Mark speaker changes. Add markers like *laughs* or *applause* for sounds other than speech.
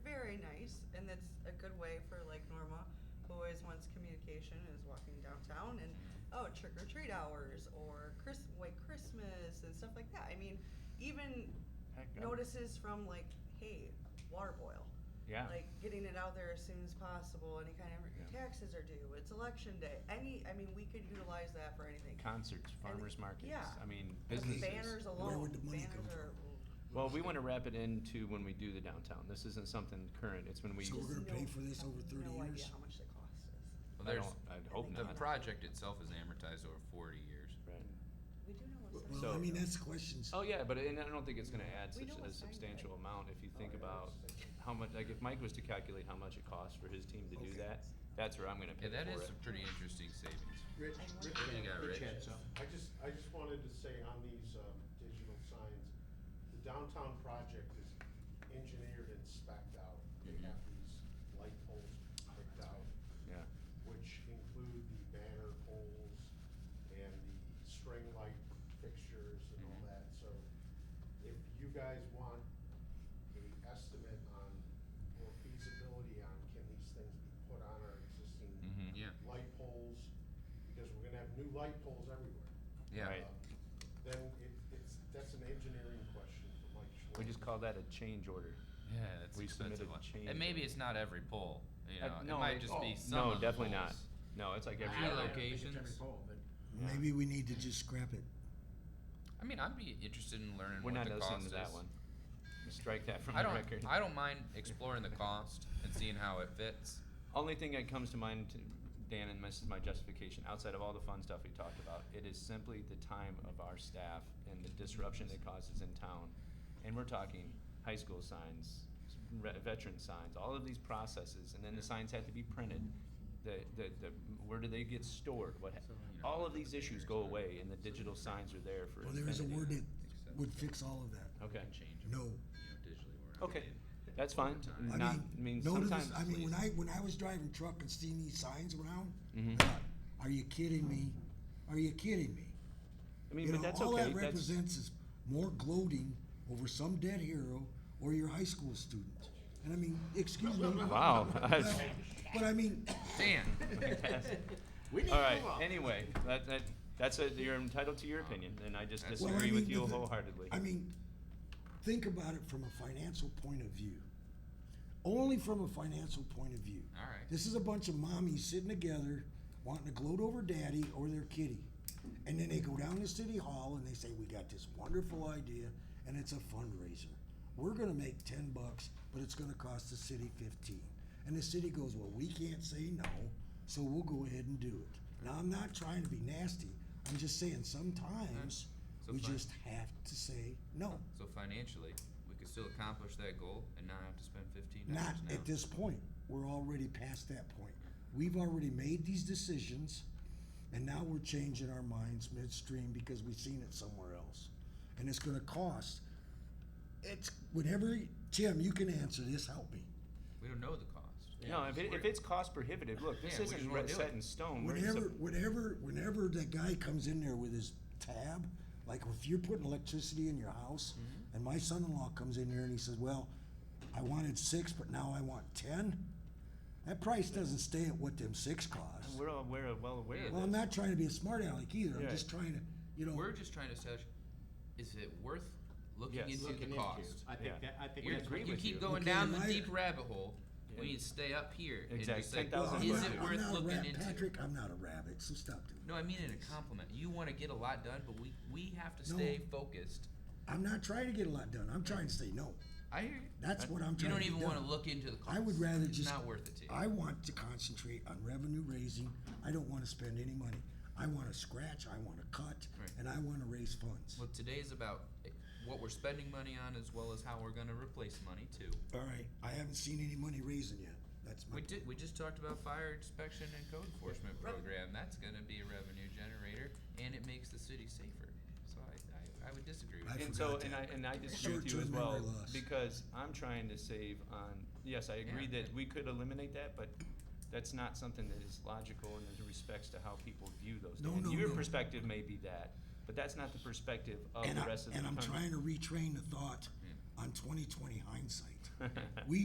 Speaker 1: good way for like Norma, who always wants communication, is walking downtown and oh trick or treat hours or Chris white Christmas and stuff like that. I mean, even
Speaker 2: Heck, I'm-
Speaker 1: notices from like hey water boil.
Speaker 2: Yeah.
Speaker 1: Like getting it out there as soon as possible. Any kind of
Speaker 2: Yeah.
Speaker 1: taxes are due. It's election day. Any, I mean, we could utilize that for anything.
Speaker 2: Concerts, farmers markets.
Speaker 1: yeah.
Speaker 2: I mean, businesses.
Speaker 1: Banners alone.
Speaker 3: Where would the money
Speaker 1: Banners
Speaker 3: come
Speaker 1: are-
Speaker 2: Well, we want to wrap it into when we do the downtown. This isn't something current. It's when we.
Speaker 3: So we're gonna-
Speaker 1: no-
Speaker 3: pay for this over 30
Speaker 1: No idea
Speaker 3: years?
Speaker 1: how much the cost is.
Speaker 4: Well,
Speaker 2: I
Speaker 4: there's,
Speaker 2: don't. I hope
Speaker 1: think
Speaker 4: the
Speaker 2: not.
Speaker 4: project itself is amortized over 40 years.
Speaker 2: Right.
Speaker 1: We do know what's.
Speaker 3: Well,
Speaker 2: So-
Speaker 3: I mean, that's questions.
Speaker 2: Oh yeah, but and I don't think it's going to add
Speaker 1: We
Speaker 2: such
Speaker 1: know
Speaker 2: a
Speaker 1: what's signed,
Speaker 2: substantial
Speaker 1: right?
Speaker 2: amount if you think
Speaker 1: Oh,
Speaker 5: yeah,
Speaker 2: about
Speaker 5: that's-
Speaker 2: how much. Like if Mike was to calculate how much it costs for his team to do
Speaker 3: Okay.
Speaker 2: that, that's where I'm going to pay
Speaker 4: Yeah, that
Speaker 2: for
Speaker 4: is
Speaker 2: it.
Speaker 4: some pretty interesting savings.
Speaker 5: Rich,
Speaker 1: I
Speaker 5: Rich,
Speaker 1: wonder-
Speaker 4: You got
Speaker 5: Rich
Speaker 4: Rich.
Speaker 5: had some.
Speaker 6: I just, I just wanted to say on these um, digital signs, the downtown project is engineered and spec'd out. They have these light poles picked out,
Speaker 2: yeah.
Speaker 6: which include the banner poles and the string light fixtures and all that. So if you guys want an estimate on, or feasibility on, can these things be put on our existing
Speaker 2: Mhm.
Speaker 4: Yeah,
Speaker 6: light poles? Because we're gonna have new light poles everywhere.
Speaker 4: yeah.
Speaker 2: Right.
Speaker 6: Um, Then it, it's, that's an engineering question for Mike Schwartz.
Speaker 2: We just call that a change order.
Speaker 4: Yeah, that's
Speaker 2: We submitted
Speaker 4: expensive. one.
Speaker 2: change
Speaker 4: And maybe
Speaker 2: order.
Speaker 4: it's not every pole, you
Speaker 2: Uh,
Speaker 4: know, it
Speaker 2: no,
Speaker 4: might
Speaker 2: it-
Speaker 4: just be
Speaker 5: oh,
Speaker 4: some
Speaker 2: no,
Speaker 4: of the
Speaker 2: definitely not.
Speaker 4: poles.
Speaker 2: No, it's like
Speaker 4: I
Speaker 2: every
Speaker 4: don't
Speaker 2: other.
Speaker 4: know. locations.
Speaker 5: Every poll, but
Speaker 3: Maybe we need to just scrap it.
Speaker 4: I mean, I'd be interested in learning
Speaker 2: We're
Speaker 4: what
Speaker 2: not
Speaker 4: the
Speaker 2: listening
Speaker 4: cost
Speaker 2: to
Speaker 4: is.
Speaker 2: that one. Strike that from
Speaker 4: I
Speaker 2: the
Speaker 4: don't,
Speaker 2: record.
Speaker 4: I don't mind
Speaker 2: *laughs*
Speaker 4: exploring the cost and seeing how it fits.
Speaker 2: Only thing that comes to mind, Dan, and this is my justification, outside of all the fun stuff we talked about, it is simply the time of our staff and the disruption it causes in town. And we're talking high school signs, re- veteran signs, all of these processes, and then the signs have to be printed. The, the, the, where do they get stored? What, ha-
Speaker 4: you know,
Speaker 2: all of these issues go away and the digital signs are there for.
Speaker 3: Well, there is a word
Speaker 2: infinity.
Speaker 3: that would fix all of that.
Speaker 2: Okay,
Speaker 4: And change 'em,
Speaker 3: No.
Speaker 4: you know, digitally or
Speaker 2: okay,
Speaker 4: outdated.
Speaker 2: that's fine.
Speaker 3: I
Speaker 2: Not, I
Speaker 3: mean,
Speaker 2: mean,
Speaker 3: no to this-
Speaker 2: sometimes.
Speaker 3: I mean, when I,
Speaker 4: please.
Speaker 3: when I was driving truck and seeing these signs around, I
Speaker 2: Mhm.
Speaker 3: thought, are you kidding me? Are you kidding me?
Speaker 2: I mean,
Speaker 3: You
Speaker 2: but
Speaker 3: know,
Speaker 2: that's
Speaker 3: all
Speaker 2: okay.
Speaker 3: that
Speaker 2: That's- *laughs*
Speaker 3: represents is more gloating over some dead hero or your high school student. And I mean, excuse me.
Speaker 2: Wow. *laughs* that's-
Speaker 3: But I mean,
Speaker 4: Dan,
Speaker 2: All right. Anyway, that, that that's a, you're entitled to your opinion, and I just
Speaker 4: That's-
Speaker 2: disagree
Speaker 3: Well, I
Speaker 2: with
Speaker 3: mean,
Speaker 2: you
Speaker 3: the-
Speaker 2: wholeheartedly.
Speaker 3: I mean, think about it from a financial point of view. Only from a financial point of view.
Speaker 4: *laughs* All right.
Speaker 3: This is a bunch of mommies sitting together wanting to gloat over daddy or their kitty. And then they go down to City Hall and they say, We got this wonderful idea and it's a fundraiser. We're gonna make ten bucks, but it's gonna cost the city fifteen. And the city goes, Well, we can't say no, so we'll go ahead and do it. Now I'm not trying to be nasty. I'm just saying sometimes
Speaker 4: So
Speaker 3: we
Speaker 4: fine.
Speaker 3: just have to say no.
Speaker 4: so financially, we could still accomplish that goal and not have to spend fifteen
Speaker 3: Not
Speaker 4: dollars an hour.
Speaker 3: at this point. We're already past that point. We've already made these decisions, and now we're changing our minds midstream because we've seen it somewhere else. And it's going to cost. It's whenever, Tim, you can answer this, help me.
Speaker 4: We don't know the cost.
Speaker 2: no, if, it, if it's cost prohibitive, look, this
Speaker 4: Yeah, we just
Speaker 2: isn't
Speaker 4: wanna
Speaker 2: re-
Speaker 4: do
Speaker 2: set
Speaker 4: it.
Speaker 2: in stone. We're
Speaker 3: Whenever,
Speaker 2: sup-
Speaker 3: whenever, whenever that guy comes in there with his tab, like if you're putting electricity in your house, and my son-in-law comes in here and he says, "Well, I wanted six, but now I want 10. That price doesn't stay at what them six cost.
Speaker 2: we're all aware, of- well aware of
Speaker 4: Yeah.
Speaker 3: Well,
Speaker 2: that.
Speaker 3: I'm not trying to be a smart aleck either. I'm
Speaker 2: Yeah.
Speaker 3: just trying to, you know,
Speaker 4: We're just trying to establish, is it worth looking
Speaker 2: Yes.
Speaker 4: into
Speaker 5: Looking
Speaker 4: the
Speaker 5: into.
Speaker 4: cost?
Speaker 5: I
Speaker 2: Yeah.
Speaker 5: think that, I think
Speaker 4: We're-
Speaker 5: that's what
Speaker 2: agree
Speaker 4: you
Speaker 2: with
Speaker 4: keep
Speaker 2: you.
Speaker 4: going
Speaker 3: Okay,
Speaker 4: down the
Speaker 3: and I-
Speaker 4: deep rabbit hole. We need to stay up here. and
Speaker 2: Exactly.
Speaker 4: just say,
Speaker 2: 10,000
Speaker 4: Is
Speaker 2: bucks.
Speaker 4: it
Speaker 3: I'm
Speaker 4: worth
Speaker 3: not a
Speaker 4: looking
Speaker 3: rat,
Speaker 4: into?
Speaker 3: Patrick, I'm not a rabbit, so stop doing
Speaker 4: No, I mean in a compliment. You want to get a lot done, but we we have to stay focused.
Speaker 3: it. I'm not trying to get a lot done. I'm trying to say no.
Speaker 4: I hear you.
Speaker 3: That's what I'm
Speaker 4: You
Speaker 3: trying
Speaker 4: don't
Speaker 3: to
Speaker 4: even
Speaker 3: do.
Speaker 4: want to look into the cost.
Speaker 3: I would rather
Speaker 4: it's
Speaker 3: just.
Speaker 4: not worth it to you.
Speaker 3: I want to concentrate on revenue raising. I don't want to spend any money. I want to scratch, I want to cut,
Speaker 4: Right.
Speaker 3: and I want to raise funds.
Speaker 4: well, today's about eh, what we're spending money on, as well as how we're going to replace money too.
Speaker 3: All right, I haven't seen any money raising yet. That's my.
Speaker 4: We did. We just talked about fire inspection and code enforcement program. That's going to be a revenue generator, and it makes the city safer. So I, I, I would disagree with
Speaker 3: I
Speaker 4: you.
Speaker 2: and so
Speaker 3: forgot
Speaker 2: and I and I disagree with you
Speaker 3: Short-term
Speaker 2: as well
Speaker 3: memory loss.
Speaker 2: because I'm trying to save on. Yes, I agree
Speaker 4: Yeah.
Speaker 2: that we could eliminate that, but that's not something that is logical in the respects to how people view those.
Speaker 3: No,
Speaker 2: things.
Speaker 3: no,
Speaker 2: Your
Speaker 3: no.
Speaker 2: perspective may be that, but that's not the perspective of
Speaker 3: And
Speaker 2: Oh, the
Speaker 3: I-
Speaker 2: rest of *laughs*
Speaker 3: and
Speaker 2: the
Speaker 3: I'm
Speaker 2: country.
Speaker 3: trying to retrain the thought on 2020 hindsight. We